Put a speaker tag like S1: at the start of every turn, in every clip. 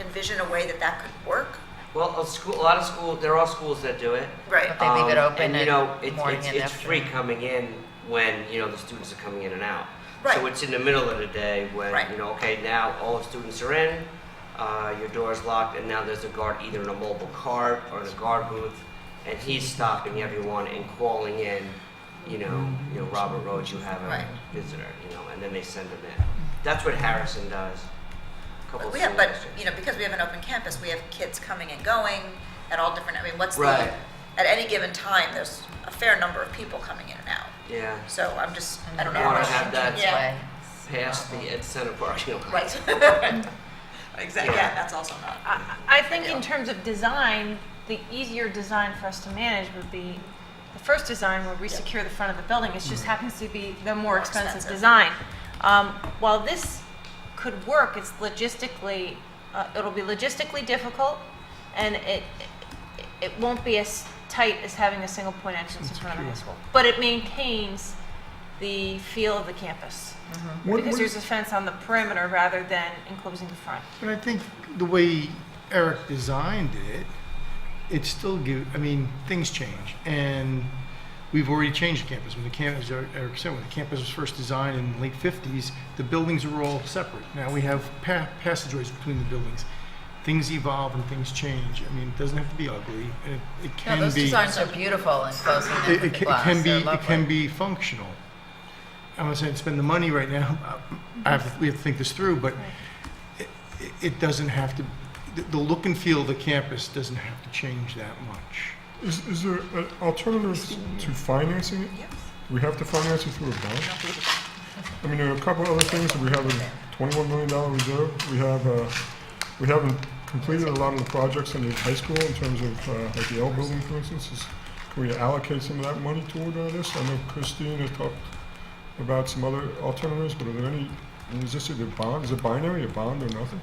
S1: envision a way that that could work?
S2: Well, a school, a lot of school, there are schools that do it.
S1: Right.
S3: They leave it
S2: Um,
S3: open
S2: you
S3: at
S2: know, it's-
S3: morning
S2: it's-
S3: and
S2: It's free
S3: afternoon.
S2: coming in when, you know, the students are coming in and out. So
S1: Right.
S2: it's in the middle of the day when,
S1: Right.
S2: you know, okay, now all the students are in, uh, your door is locked, and now there's a guard either in a mobile cart or in a guard booth, and he's stopping everyone and calling in, you know, you know, Robert Rhodes, you have
S1: Right.
S2: a visitor, you know, and then they send them in. That's what Harrison does. Couple
S1: But
S2: of
S1: we have,
S2: school
S1: but,
S2: districts.
S1: you know, because we have an open campus, we have kids coming and going at all different, I mean, what's the,
S2: Right.
S1: at any given time, there's a fair number of people coming in and out.
S2: Yeah,
S1: So I'm just, I don't
S2: You wanna
S1: know.
S2: have that-
S3: Yeah.
S2: past the Ed Center parking lot.
S1: Right. Exactly, yeah, that's also not.
S4: I, I think in terms of design, the easier design for us to manage would be the first design where we secure the front of the building. It
S5: Mm-hmm.
S4: just happens to be the more expensive
S1: expensive.
S4: design. Um, While this could work, it's logistically, uh, it'll be logistically difficult and it, it- it won't be as tight as having a single point entrance in front of the high school. But it maintains the feel of the campus
S5: What-
S4: because
S5: what-
S4: there's a fence on the perimeter rather than enclosing the front.
S5: But I think the way Eric designed it, it still give. I mean, things change, and we've already changed the campus. When the campus, as Eric said, when the campus was first designed in the late '50s, the buildings were all separate. Now we have pa- passageways between the buildings. Things evolve and things change. I mean, it doesn't have to be ugly. It, it
S3: No,
S5: can
S3: those
S5: be.
S3: designs are beautiful and closing them
S5: it,
S3: with
S5: it
S3: the
S5: ca-
S3: glass.
S5: it can be
S3: They're
S5: it can
S3: lovely.
S5: be functional. I'm not saying spend the money right now. I have, to- we have to think this through, but it, it- it doesn't have to. The, the look and feel of the campus doesn't have to change that much.
S6: Is, is there an alternative to financing it? We have to finance it through a bond? I mean, there are a couple other things, that we have a twenty-one million dollar reserve, we have, uh, we haven't completed a lot of the projects in the high school in terms of, uh, like the L building, for instance, is, can we allocate some of that money toward uh, this? I know Christine has talked about some other alternatives, but are there any, is this a bond, is it binary, a bond or nothing?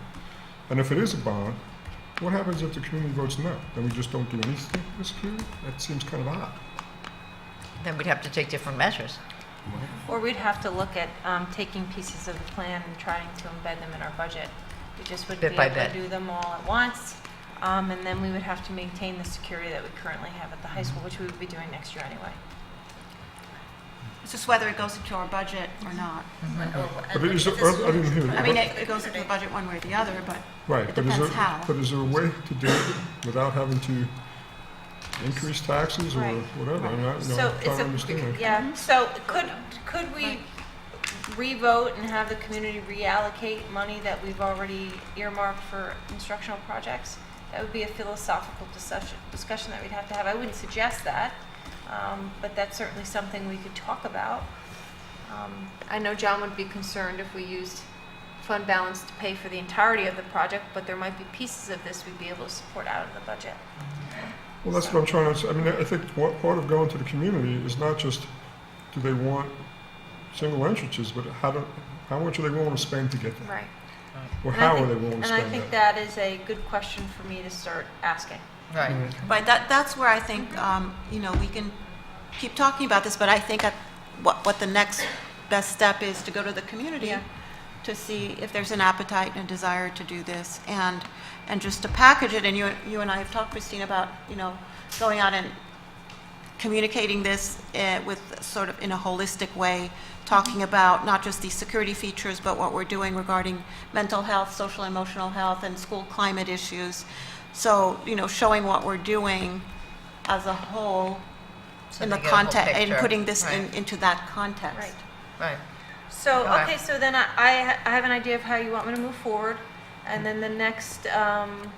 S6: And if it is a bond, what happens if the community votes no? Then we just don't do anything this period? That seems kind of odd.
S3: Then we'd have to take different measures.
S4: Or we'd have to look at um, taking pieces of the plan and trying to embed them in our budget. We just wouldn't
S3: Bit
S4: be
S3: by
S4: able to
S3: bit.
S4: do them all at once. Um, And then we would have to maintain the security that we currently have at the high school, which we would be doing next year anyway.
S7: It's just whether it goes into our budget or not.
S5: Mm-hmm.
S6: But is there, I didn't hear.
S7: I mean,
S6: but-
S7: it it goes into the budget one way or the other, but
S6: Right,
S7: it
S6: but is
S7: depends
S6: there,
S7: how.
S6: but is there a way to do it without having to increase taxes or
S4: Right.
S6: whatever? I'm not, you
S4: So
S6: know, I'm trying to
S4: it's
S6: understand.
S4: a, yeah, so could, could we revote and have the community reallocate money that we've already earmarked for instructional projects? That would be a philosophical discussion, discussion that we'd have to have. I wouldn't suggest that, um, but that's certainly something we could talk about. Um, I know John would be concerned if we used fund balance to pay for the entirety of the project, but there might be pieces of this we'd be able to support out of the budget.
S6: Well, that's what I'm trying to, s- I mean, I think what, part of going to the community is not just, do they want single entrances, but how do, how much are they willing to spend to get there?
S4: Right.
S6: Or
S4: And I
S6: how are
S4: think-
S6: they willing to
S4: And I
S6: spend
S4: think
S6: that?
S4: that is a good question for me to start asking.
S3: Right.
S5: Mm-hmm.
S7: Right, that, that's where I think, um, you know, we can keep talking about this, but I think at- what, what the next best step is to go to the community
S4: Yeah.
S7: to see if there's an appetite and a desire to do this, and, and just to package it, and you, you and I have talked, Christine, about, you know, going out and communicating this eh, with, sort of in a holistic way, talking about not just these security features, but what we're doing regarding mental health, social and emotional health, and school climate issues. So, you know, showing what we're doing as a whole
S3: So
S7: in
S3: they
S7: the
S3: get a whole
S7: context, and
S3: picture.
S7: putting this in,
S3: Right.
S7: into that context.
S4: Right.
S3: Right.
S4: So,
S3: Okay.
S4: okay, so then I, I ha- I have an idea of how you want me to move forward. And then the next um,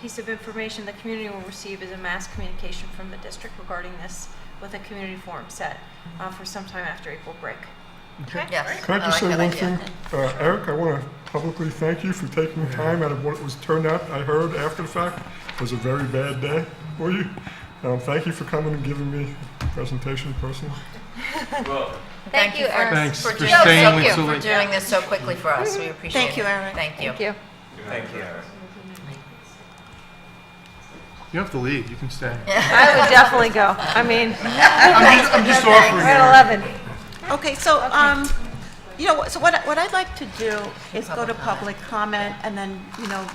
S4: piece of information the community will receive is a mass communication from the district regarding this with a community forum set uh, for sometime after April break. Okay?
S3: Yes.
S6: Can I just
S3: like
S6: say
S3: that
S6: one
S3: idea.
S6: thing? Uh, Eric, I want to publicly thank you for taking time out of what was turned out, I heard after the fact, was a very bad day for you. Um, Thank you for coming and giving me a presentation personally.
S3: Thank you, Eric.
S5: Thanks for
S3: doing-
S5: staying
S3: thank
S5: with
S3: you
S5: so
S3: for
S5: late.
S3: doing this so quickly for us. We appreciate it.
S7: Thank you, Eric.
S3: Thank you.
S4: you.
S5: You don't have to leave. You can stay.
S4: I would definitely go. I mean,
S5: I'm, just, I'm just offering.
S4: we're
S5: Eric.
S4: at 11.
S7: Okay, so, um, you know, so what, what I'd like to do is go to public comment and then, you know,